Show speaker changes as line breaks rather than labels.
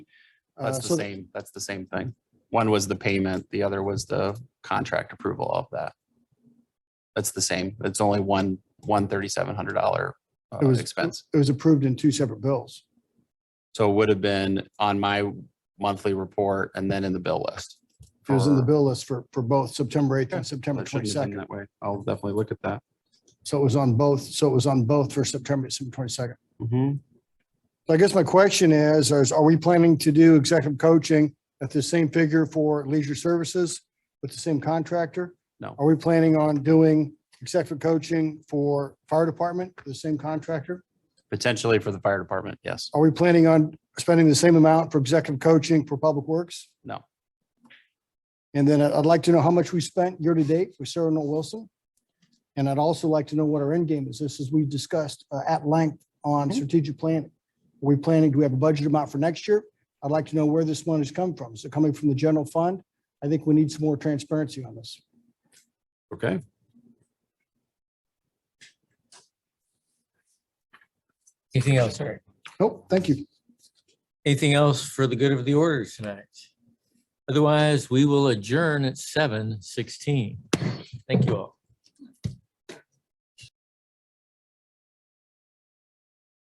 That's
Uh,
the
so-
same, that's the same thing. One was the payment, the other was the contract approval of that. That's the same. It's only one, one thirty-seven hundred dollar uh,
It was-
expense.
It was approved in two separate bills.
So it would have been on my monthly report and then in the bill list.
It was in the
for-
bill list for, for both September 8th
Yeah,
and September
That shouldn't have been
22nd.
That way. I'll definitely look at that.
So it was on both, so it was on both for September, September 22nd.
Mhm.
So I guess my question is, is are we planning to do executive coaching at the same figure for leisure services with the same contractor?
No.
Are we planning on doing executive coaching for fire department, the same contractor?
Potentially for the fire department, yes.
Are we planning on spending the same amount for executive coaching for public works?
No.
And then I- I'd like to know how much we spent year to date for Sarah Noel Wilson. And I'd also like to know what our end game is. This is, we discussed uh, at length on
Mhm.
strategic planning. Are we planning, do we have a budget amount for next year? I'd like to know where this money has come from. Is it coming from the general fund? I think we need some more transparency on this.
Okay.
Anything else, Eric?
Nope, thank you.
Anything else for the good of the order tonight? Otherwise, we will adjourn at seven sixteen. Thank you all.